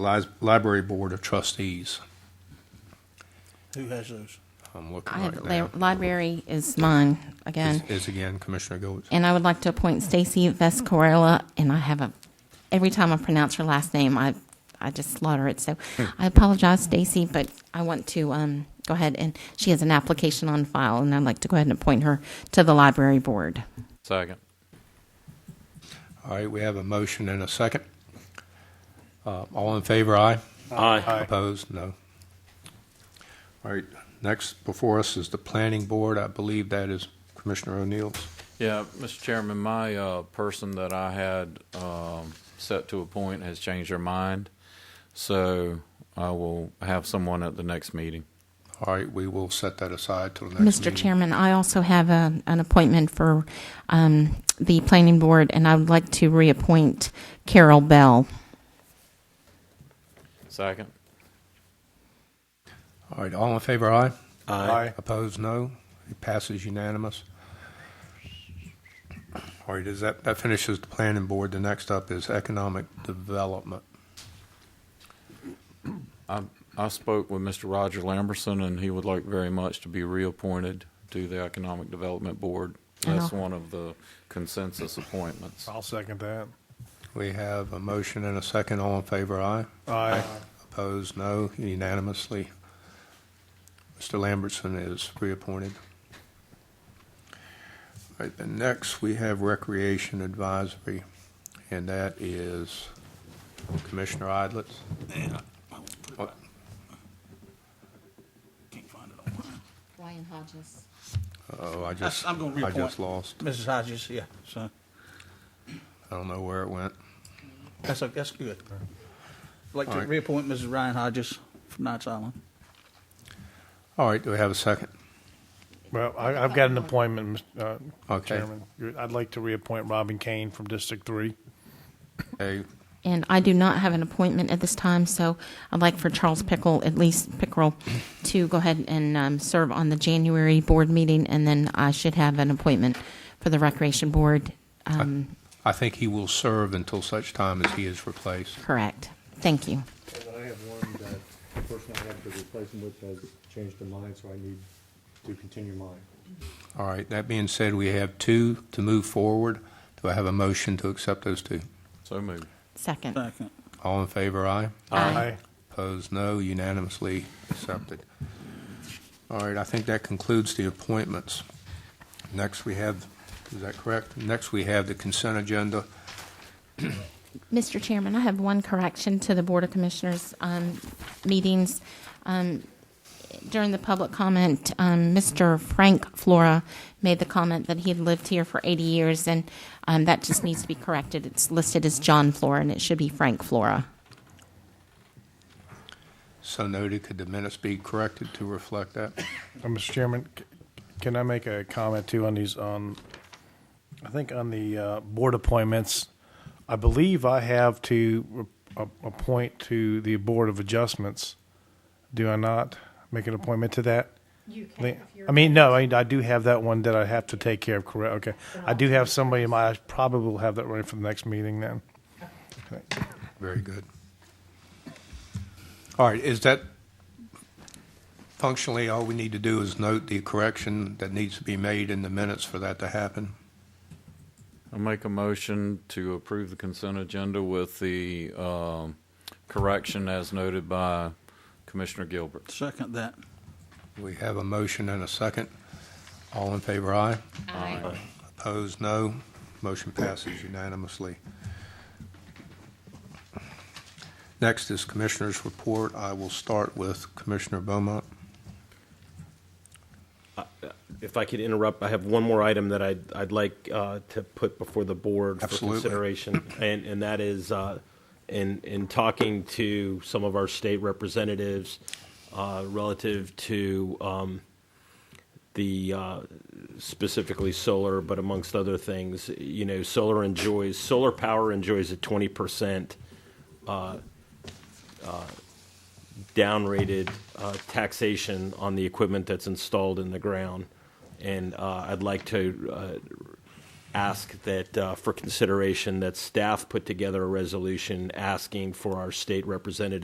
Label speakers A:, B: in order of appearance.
A: Li- Library Board of Trustees.
B: Who has those?
A: I'm
C: I
A: looking
C: have,
A: right
C: li-
A: now.
C: library is mine
A: Is
C: again.
A: is again Commissioner Goetz.
C: And I would like to appoint Stacy Vescarella, and I have a, every time I pronounce her last name, I, I just slaughter it. So I apologize, Stacy, but I want to, um, go ahead and, she has an application on file, and I'd like to go ahead and appoint her to the library board.
D: Second.
A: All right, we have a motion and a second. Uh, All in favor, aye?
D: Aye.
A: Opposed, no. All right, next before us is the Planning Board. I believe that is Commissioner O'Neill's.
D: Yeah, Mr. Chairman, my uh, person that I had um, set to appoint has changed her mind, so I will have someone at the next meeting.
A: All right, we will set that aside till the next meeting.
C: Mr. Chairman, I also have a, an appointment for, um, the planning board, and I would like to reappoint Carol Bell.
D: Second.
A: All right, all in favor, aye? Aye. Opposed, no. It passes unanimous. All right, is that, that finishes the planning board. The next up is economic development.
D: I spoke with Mr. Roger Lamberson, and he would like very much to be reappointed to the Economic Development Board. That's
C: Oh.
D: one of the consensus appointments.
B: I'll second that.
A: We have a motion and a second. All in favor, aye?
B: Aye.
A: Opposed, no. Unanimously. Mr. Lambertson is reappointed. All right, then next, we have Recreation Advisory, and that is Commissioner Idlets. What-
E: Can't find it online.
C: Ryan Hodges.
A: Oh, I just,
E: I'm gonna
A: I
E: reappoint.
A: just lost.
B: Mrs. Hodges, yeah, so,
A: I don't know where it went.
B: that's, that's good. I'd Like
A: All
B: to
A: right.
B: reappoint Mrs. Ryan Hodges from Knights Island.
A: All right, do we have a second?
F: Well, I, I've got an appointment, Mr. uh,
A: Okay.
F: Chairman. You're- I'd like to reappoint Robin Kane from District Three.
A: Okay,
C: And I do not have an appointment at this time, so I'd like for Charles Pickle, at least Pickrell, to go ahead and um, serve on the January board meeting, and then I should have an appointment for the Recreation Board. Um,
A: I think he will serve until such time as he is replaced.
C: correct. Thank you.
G: And I have one that the person I have to replace him with has changed their mind, so I need to continue mine.
A: All right, that being said, we have two to move forward. Do I have a motion to accept those two?
D: So moved.
C: Second.
B: Second.
A: All in favor, aye.
C: Aye.
A: Opposed, no. Unanimously accepted. All right, I think that concludes the appointments. Next, we have, is that correct? Next, we have the consent agenda.
C: Mr. Chairman, I have one correction to the Board of Commissioners um, meetings. Um, During the public comment, um, Mr. Frank Flora made the comment that he had lived here for 80 years, and um, that just needs to be corrected. It's listed as John Flora, and it should be Frank Flora.
A: So noted, could the minutes be corrected to reflect that?
F: Uh, Mr. Chairman, c- can I make a comment too on these, on, I think on the uh, board appointments? I believe I have to re- a- appoint to the Board of Adjustments. Do I not make an appointment to that? You can. I mean, no, I I do have that one that I have to take care of, correct? Okay. I do have somebody in my, I probably will have that ready for the next meeting then.
A: Very good. All right, is that functionally, all we need to do is note the correction that needs to be made in the minutes for that to happen?
D: I make a motion to approve the consent agenda with the um, correction as noted by Commissioner Gilbert.
B: Second that.
A: We have a motion and a second. All in favor, aye.
C: Aye.
A: Opposed, no. Motion passes unanimously. Next is Commissioners' Report. I will start with Commissioner Beaumont.
H: If I could interrupt, I have one more item that I'd, I'd like uh, to put before the board
A: Absolutely.
H: for consideration, and, and that is uh, in, in talking to some of our state representatives uh, relative to um, the uh, specifically solar, but amongst other things, you know, solar enjoys solar power enjoys a twenty percent downrated uh, taxation on the equipment that's installed in the ground. And uh, I'd like to uh, ask that, uh, for consideration, that staff put together a resolution asking for our state representative